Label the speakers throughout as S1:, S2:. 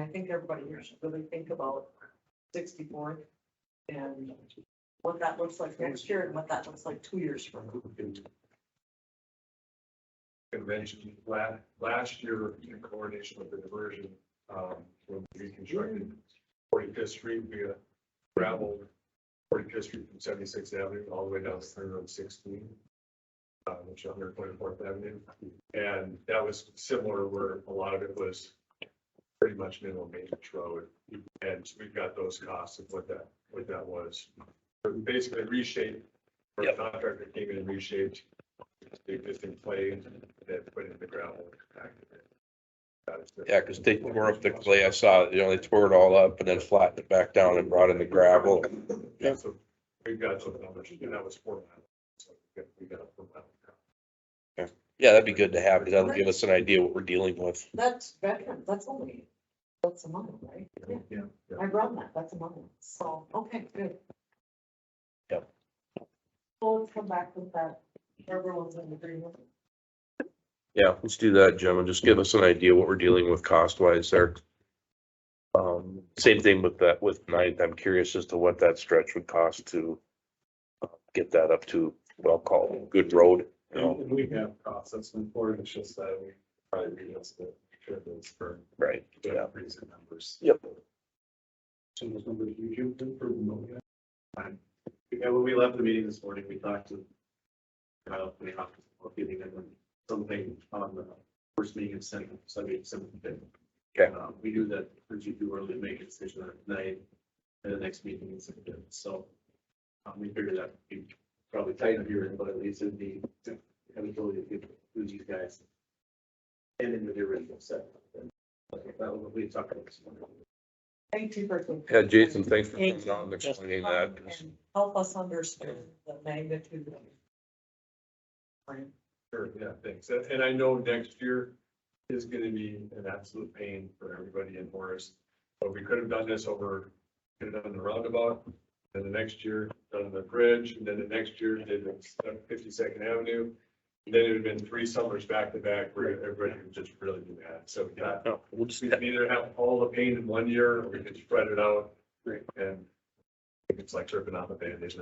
S1: I think everybody here should really think about sixty-four and what that looks like next year and what that looks like two years from now.
S2: Convention, last, last year in coordination with the diversion, um, when we reconstructed Forty Fifth Street, we uh, gravelled Forty Fifth Street from Seventy Sixth Avenue all the way down to Center of Sixteen. Uh, which is under Twenty Fourth Avenue, and that was similar where a lot of it was pretty much minimum maintenance road. And we've got those costs of what that, what that was. But we Basically reshaped, or the contractor came in and reshaped the existing clay that put in the gravel.
S3: Yeah, because they tore up the clay. I saw, it, you know, they tore it all up and then flattened it back down and brought in the gravel.
S2: Yeah, so we've got some numbers, and that was four miles. So we got- we got a four mile.
S3: Yeah, that'd be good to have. 'cause That'll give us an idea what we're dealing with.
S1: That's veteran, that's only, that's a month, right? Yeah,
S2: Yeah. yeah.
S1: I run that, that's a month, so, okay, good.
S3: Yep.
S1: Well, let's come back with that, everyone's in agreement.
S3: Yeah, let's do that, Jim, and just give us an idea what we're dealing with cost wise there. Um, same thing with that, with ninth. I'm curious as to what that stretch would cost to uh, get that up to, well, called good road. you
S2: And
S3: know?
S2: and we have processing for it, it's just that we probably readjust the treatments for
S3: Right, yeah.
S2: different reason numbers.
S3: Yep.
S2: So those numbers you give them for remote. Yeah, when we left the meeting this morning, we talked to. About the office, or feeling that when something on the first meeting of Senate, Sunday, seventh.
S3: Okay.
S2: We knew that if you do early, make a decision that night, at the next meeting in September, so. Um, we figured that we probably tighten up here, but at least it'd be, have ability to get through these guys. And then with the original set. Like, That was what we talked about this morning.
S1: Thank you for.
S3: Yeah, Jason, thanks for
S1: Thank
S3: coming on and
S1: you.
S3: explaining that.
S1: And Help us understand the magnitude of. it.
S2: Sure, yeah, thanks. And, and I know next year is gonna be an absolute pain for everybody in Horace. But we could have done this over, could have done the roundabout, then the next year, done the bridge, and then the next year, did Fifty Second Avenue. Then it would have been three summers back to back where everybody would just really be mad. So we got,
S3: No, We'll just,
S2: we can either have all the pain in one year or we can spread it out. And it's like ripping out the bandage.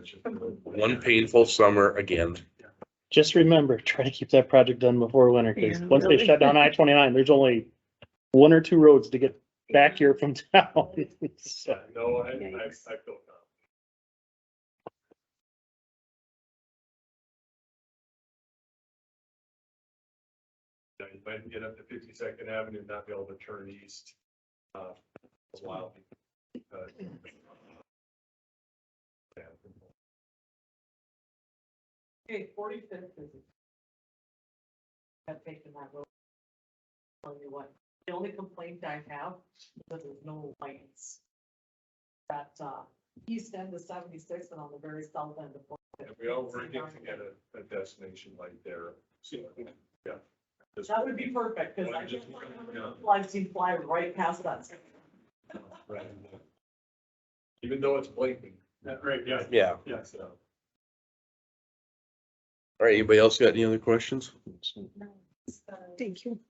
S3: one painful summer again.
S4: Just remember, try to keep that project done before winter, because
S5: Yeah.
S4: once they shut down I twenty-nine, there's only one or two roads to get back here from town. So,
S2: No, I, I, I feel
S5: Yikes.
S2: confident. you know, you might get up to Fifty Second Avenue, and not be able to turn east. uh, It's wild. Uh, yeah.
S1: Okay, forty-fifth is. I've taken that road. Tell you what, the only complaint I have, is that there's no lights. That, uh, east end of seventy-six and on the very south end of. 45th.
S2: And we all working to get a, a destination light there. So, yeah. Just-
S1: That would be perfect, because I just, I've seen fly right past that.
S2: Right. Even though it's blinking. Right, yeah,
S3: Yeah.
S2: yeah, so.
S3: All right, anybody else got any other questions?
S5: Thank you.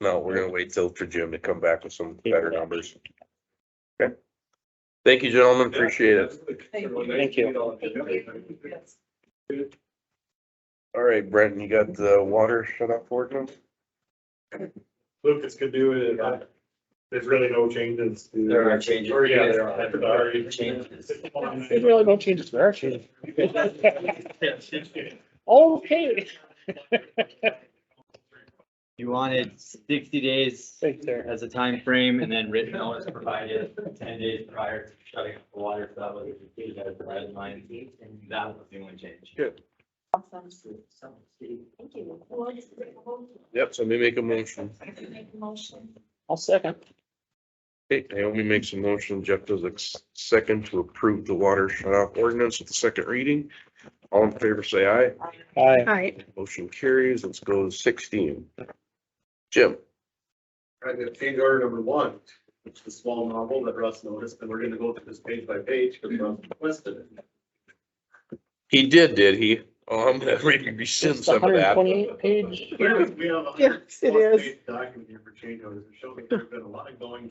S3: No, we're gonna wait till for Jim to come back with some better numbers. Okay. Thank you, gentlemen. Appreciate it.
S1: Thank
S4: you.
S1: Yes.
S3: All right, Brenton, you got the water shut off for them?
S2: Lucas could do it. uh, There's really no changes. to-
S6: There are changes.
S2: Or, yeah, there are. There are
S6: Changes.
S4: They really don't change it, they're actually, okay,
S6: You wanted sixty days
S4: right there.
S6: as a time frame, and then written notice provided ten days prior to shutting off the water, so that was included as a red line. That was the only change.
S1: Thank you. Well, just make a motion.
S3: Yep, so let me make a motion.
S1: Make a motion.
S4: I'll second.
S3: Okay, Naomi makes a motion, Jeff does a s- second to approve the water shut off ordinance with the second reading. All in favor, say aye.
S4: Aye.
S5: Hi.
S3: Motion carries. Let's go to sixteen. Jim?
S2: I'm gonna change order number one, which is the small novel that Russ noticed, and we're gonna go through this page by page, because Russ requested it.
S3: He did, did he? Oh, I'm gonna re- rescind
S4: It's a
S3: some of
S4: hundred and
S3: that.
S4: twenty-eight page.
S2: uh, We have a
S5: Yes,
S2: plus
S5: it is.
S2: page document here for change orders, it shows that there's been a lot of going